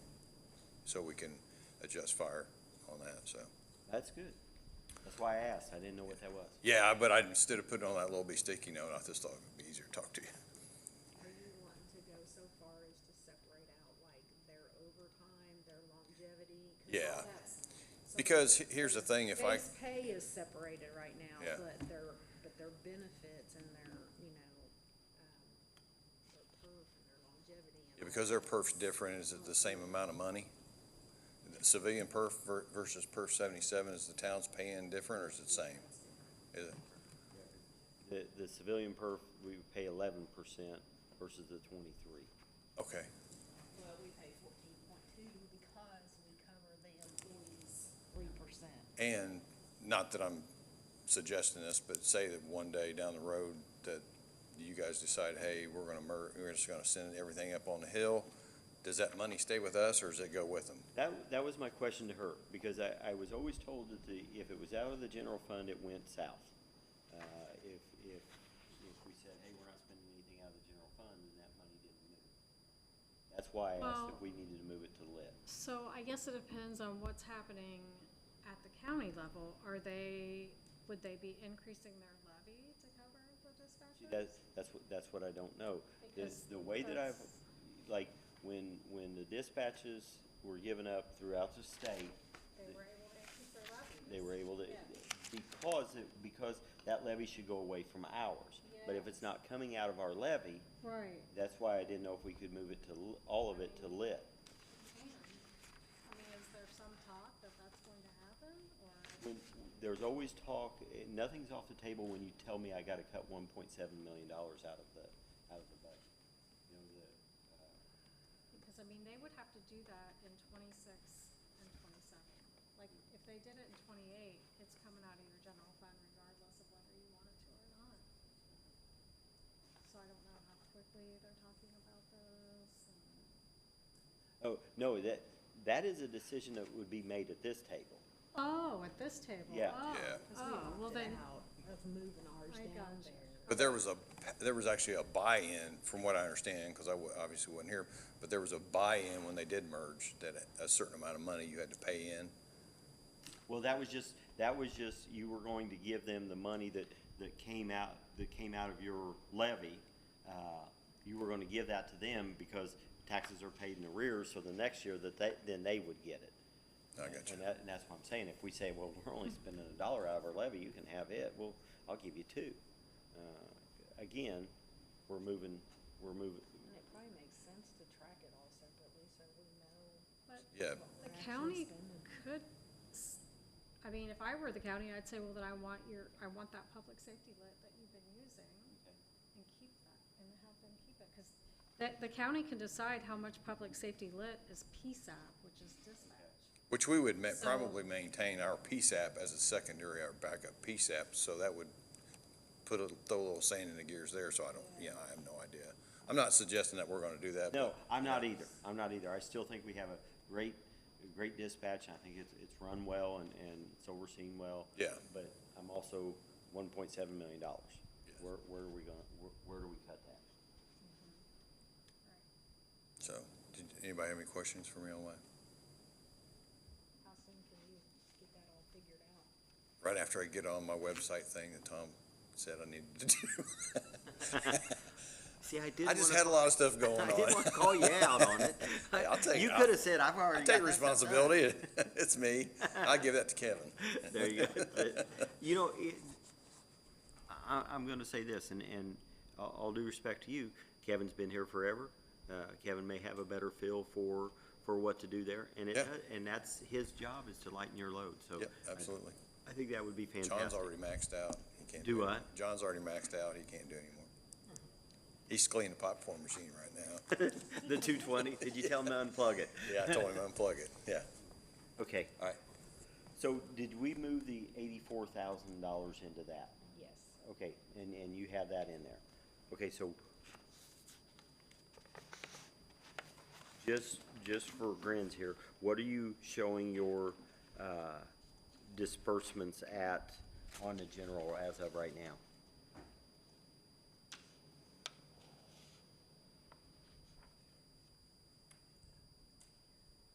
so we can adjust fire on that, so. That's good. That's why I asked. I didn't know what that was. Yeah, but I, instead of putting on that little bitty sticky note, I just thought it'd be easier to talk to you. Are you wanting to go so far as to separate out like their overtime, their longevity? 'Cause all Yeah. that's something- Because he- here's the thing, if I, Base pay is separated right now, Yeah. but their, but their benefits and their, you know, um, their perf and their longevity and. yeah, all because that. their perf's different, is it the same amount of money? Civilian perf ver- versus perf seventy-seven, is the town's paying different or is it the same? Is it? The, the civilian perf, we pay eleven percent versus the twenty-three. Okay, Well, we pay fourteen point two because we cover the employees three percent. and not that I'm suggesting this, but say that one day down the road that you guys decide, hey, we're gonna mer, we're just gonna send everything up on the hill, does that money stay with us or does it go with them? That, that was my question to her, because I, I was always told that the, if it was out of the general fund, it went south. Uh, if, if, if we said, hey, we're not spending anything out of the general fund, then that money didn't move. That's why I asked Well- if we needed to move it to lit. So I guess it depends on what's happening at the county level. Are they, would they be increasing their levy to cover the See, dispatcher? that's, that's what, that's what I don't know. The, Because the way that I've, that's- like, when, when the dispatches were given up throughout the state, They were able to increase their levy. they were able to, Yeah. because it, because that levy should go away from ours. But if it's not coming out of our levy, Right. that's why I didn't know if we could move it to, l- all of it to lit. And, I mean, is there some talk that that's going to happen or? When, there's always talk, eh, nothing's off the table when you tell me I gotta cut one point seven million dollars out of the, out of the budget. You know, the, uh, Because I mean, they would have to do that in twenty-six and twenty-seven. Like, if they did it in twenty-eight, it's coming out of your general fund regardless of whether you want it to or not. So I don't know how quickly they're talking about this and. Oh, no, that, that is a decision that would be made at this table. Oh, at this table? Yeah. Oh, Yeah. Because we Oh, well opted then, out Of moving ours I down gotcha. there. But there was a, there was actually a buy-in, from what I understand, because I wa- obviously wasn't here, but there was a buy-in when they did merge, that a certain amount of money you had to pay in. Well, that was just, that was just, you were going to give them the money that, that came out, that came out of your levy. Uh, You were gonna give that to them because taxes are paid in arrears, so the next year that they, then they would get it. I got you. And that, and that's what I'm saying, if we say, well, we're only spending a dollar out of our levy, you can have it, well, I'll give you two. Uh, Again, we're moving, we're moving, And it probably makes sense to track it all separately so we know. But Yeah, what the we're actually county spending. could, s- I mean, if I were the county, I'd say, well, then I want your, I want that public safety lit that you've been using and keep that and have them keep it, because the, the county can decide how much public safety lit is PSAP, which is dispatch. which we would ma- So- probably maintain our PSAP as a secondary, our backup PSAP, so that would put a, throw a little sand in the gears there, so I don't, yeah, I have no idea. I'm not suggesting that we're gonna do that. No, but- I'm not either. I'm not either. I still think we have a great, a great dispatch. and I think it's, it's run well and, and it's overseen well. Yeah. But I'm also one point seven million dollars. Yes. Where, where are we gonna, where, where do we cut that? So, did anybody have any questions for me on that? How soon can you get that all figured out? Right after I get on my website thing that Tom said I needed to do. See, I did. I just wanna- had a lot of stuff going on. I did want to call you out on it. Hey, I'll take- You I'll- could have said, I've I already. got take that stuff done." responsibility. It's me. I give that to Kevin. There you go. But, You know, it, I, I'm gonna say this, and, and all all due respect to you, Kevin's been here forever. Uh, Kevin may have a better feel for, for what to do there, and it, Yeah. does- and that's, his job is to lighten your load, so. Yep, I- absolutely. I think that would be fantastic. John's already maxed out. He can't Do it. what? John's already maxed out. He can't do anymore. He's cleaning the popcorn machine right now. The two twenty, did you tell him to unplug it? Yeah, I told him unplug it. Yeah. Okay, All right. so did we move the eighty-four thousand dollars into that? Yes. Okay, and, and you have that in there. Okay, so just, just for grins here, what are you showing your, uh, disbursements at on the general as of right now?